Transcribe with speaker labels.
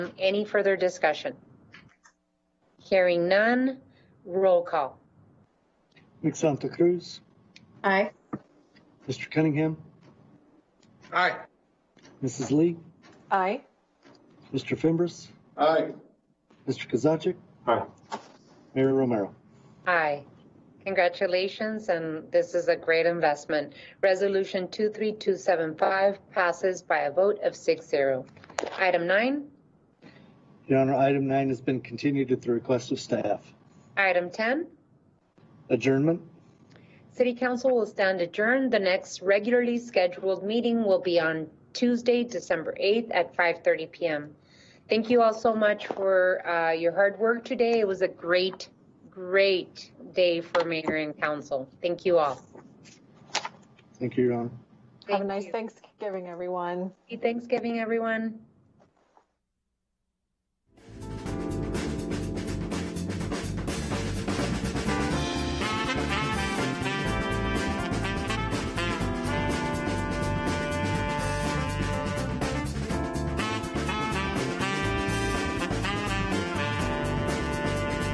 Speaker 1: Any further discussion? Hearing none, roll call.
Speaker 2: Nick Santa Cruz,
Speaker 3: Aye.
Speaker 2: Mr. Cunningham,
Speaker 4: Aye.
Speaker 2: Mrs. Lee,
Speaker 3: Aye.
Speaker 2: Mr. Fimbres,
Speaker 4: Aye.
Speaker 2: Mr. Kozaczek,
Speaker 4: Aye.
Speaker 2: Mayor Romero.
Speaker 1: Aye. Congratulations, and this is a great investment. Resolution 23275 passes by a vote of 6-0. Item nine,
Speaker 2: Your Honor, item nine has been continued at the request of staff.
Speaker 1: item 10.
Speaker 2: Adjournment.
Speaker 1: City Council will stand adjourned. The next regularly scheduled meeting will be on Tuesday, December 8th at 5:30 PM. Thank you all so much for uh, your hard work today. It was a great, great day for mayor and council. Thank you all.
Speaker 2: Thank you, Your Honor.
Speaker 3: Have a
Speaker 1: Thank
Speaker 3: nice
Speaker 1: you.
Speaker 3: Thanksgiving, everyone.
Speaker 1: Happy Thanksgiving, everyone.